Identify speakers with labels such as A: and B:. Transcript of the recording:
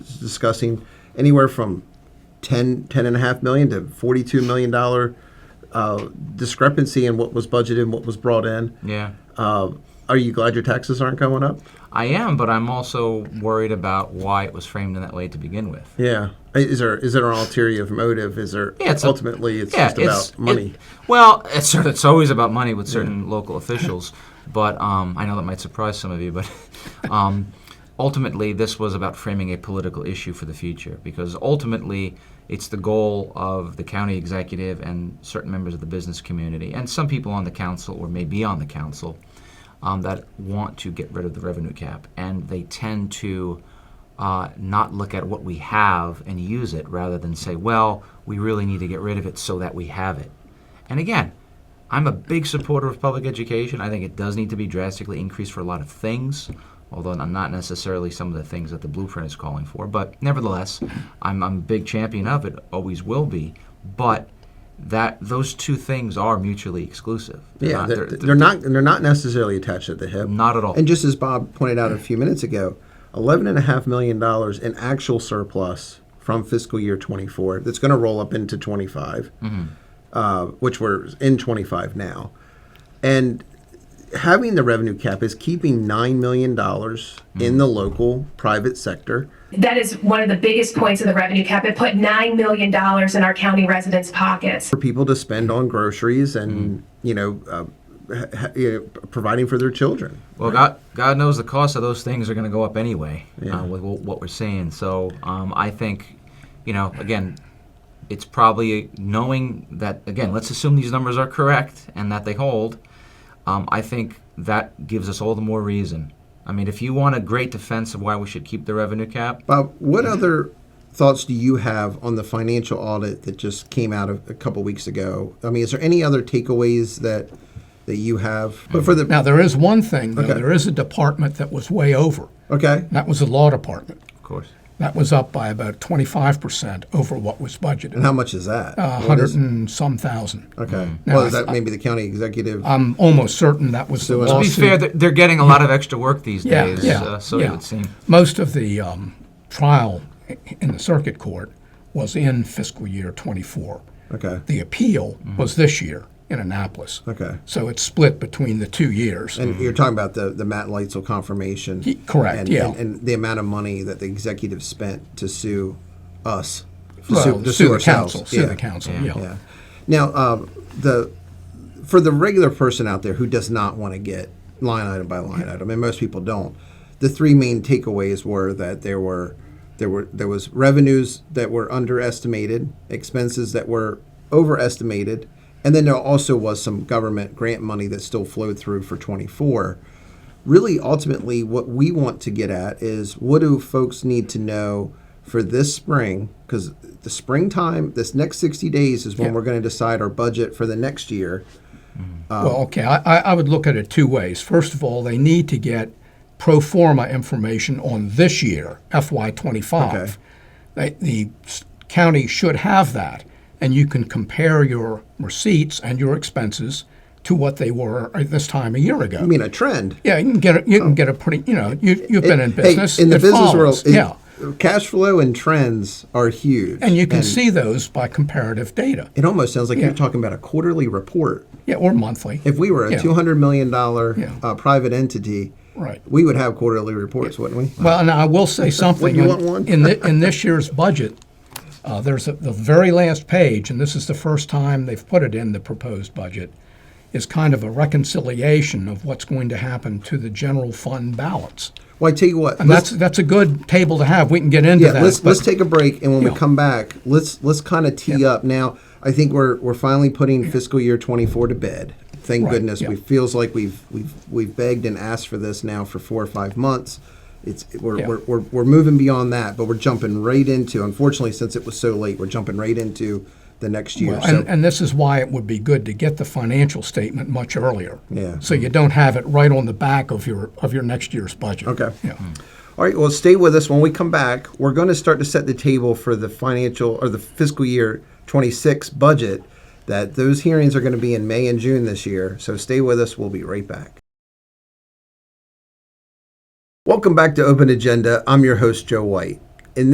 A: discussing anywhere from 10, 10 and a half million to 42 million dollar uh, discrepancy in what was budgeted and what was brought in.
B: Yeah.
A: Uh, are you glad your taxes aren't going up?
B: I am, but I'm also worried about why it was framed in that way to begin with.
A: Yeah. Is there is there an ulterior motive? Is there
B: Yeah, it's a-
A: ultimately it's just
B: it's-
A: about money?
B: it- well, it's, sort of- it's always about money with certain local officials, but um, I know that might surprise some of you, but um, ultimately, this was about framing a political issue for the future because ultimately, it's the goal of the county executive and certain members of the business community, and some people on the council or may be on the council, um, that want to get rid of the revenue cap, and they tend to uh, not look at what we have and use it rather than say, well, we really need to get rid of it so that we have it. And again, I'm a big supporter of public education. I think it does need to be drastically increased for a lot of things, although I'm not necessarily some of the things that the blueprint is calling for. But nevertheless, I'm, I'm a big champion of it, always will be. But that those two things are mutually exclusive. They're
A: yeah,
B: not-
A: they're, they're, not they're not necessarily attached at the hip.
B: Not at all.
A: And just as Bob pointed out a few minutes ago, eleven and a half million dollars in actual surplus from fiscal year twenty four that's going to roll up into twenty uh, which we're in twenty five now, and having the revenue cap is keeping nine million dollars in the local private sector.
C: That is one of the biggest points of the revenue cap. It put $9 million in our county residents' pockets.
A: for people to spend on groceries and you know, uh, ha- ha- you know, p- providing for their children.
B: Well, God, God knows the cost of those things are going to go up anyway uh, with wh- what we're seeing. So um, I think, you know, again, it's probably knowing that, again, let's assume these numbers are correct and that they hold. Um, I think that gives us all the more reason. I mean, if you want a great defense of why we should keep the revenue cap,
A: Bob, what other thoughts do you have on the financial audit that just came out of a couple weeks ago? I mean, is there any other takeaways that that you have? But for the
D: Now, there is one thing, though.
A: Okay.
D: There is a department that was way over.
A: okay,
D: That was the law department.
B: of course.
D: That was up by about 25% over what was budgeted.
A: and how much is that?
D: A
A: What is-
D: hundred and some thousand.
A: Okay.
D: Now,
A: well, is
D: Uh, mm, I- Uh,
A: that maybe the county executive?
D: I'm almost certain that was the
A: To be
B: To be
D: lawsuit.
B: fair, they're, they're getting a lot of extra work these
D: yeah,
B: days,
D: yeah,
B: uh, so
D: yeah.
B: it would seem.
D: Most of the um, trial i- in the circuit court was in fiscal year 24.
A: okay.
D: The appeal
B: Mm-hmm.
D: was this year in Annapolis.
A: Okay.
D: So it's split between the two years.
A: And you're talking about the, the Matt Leitzel confirmation.
D: Ye- correct,
A: And,
D: yeah.
A: And, and the amount of money that the executive spent to sue us. To
D: Well,
A: to
D: sue the
A: ourselves.
D: council, sue
A: Yeah.
D: the council,
A: Yeah. Now, uh, the for the regular person out there who does not want to get line item by line item, and most people don't, the three main takeaways were that there were there were there was revenues that were underestimated, expenses that were overestimated, and then there also was some government grant money that still flowed through for 24. Really, ultimately, what we want to get at is what do folks need to know for this spring? Because the springtime, this next 60 days is when
D: Yeah.
A: we're going to decide our budget for the next year. Um,
D: Well, okay, I, I I would look at it two ways. First of all, they need to get pro forma information on this year,
A: Okay.
D: FY25. They, the s- county should have that, and you can compare your receipts and your expenses to what they were at this time a year ago.
A: I mean, a trend.
D: yeah, you can get a, you can get a pretty you know you you've been in
A: Hey,
D: business
A: in the
D: it
A: business world,
D: follows,
A: it-
D: yeah,
A: cash flow and trends are huge.
D: and you can see those by comparative data,
A: It almost sounds like
D: Yeah.
A: you're talking about a quarterly report.
D: yeah, or monthly.
A: If we were a
D: Yeah.
A: $200 million uh, private entity,
D: Right.
A: we would have quarterly reports, wouldn't we?
D: Well, and I will say something.
A: you
D: in-
A: want one?
D: In, thi- in this year's budget, uh, there's a, the very last page, and this is the first time they've put it in the proposed budget, is kind of a reconciliation of what's going to happen to the general fund balance.
A: Well, I tell you what.
D: And
A: let's-
D: that's, that's a good table to have. We can get into
A: yeah,
D: that.
A: let's
D: but-
A: let's take a break, and when we
D: Yeah.
A: come back, let's let's kind of tee up. Now, I think we're we're finally putting fiscal year twenty four to bed. Thank
D: Right,
A: goodness.
D: yeah.
A: We feels like we've we've we've begged and asked for this now for four or five months. It's we're,
D: Yeah.
A: we're, we're we're moving beyond that, but we're jumping right into. Unfortunately, since it was so late, we're jumping right into the next year.
D: Well,
A: so
D: and, and this is why it would be good to get the financial statement much earlier.
A: Yeah.
D: So you don't have it right on the back of your, of your next year's budget.
A: Okay.
D: Yeah.
A: All right, well, stay with us. When we come back, we're going to start to set the table for the financial or the fiscal year 26 budget. That those hearings are going to be in May and June this year. So stay with us. We'll be right back. Welcome back to Open Agenda. I'm your host, Joe White.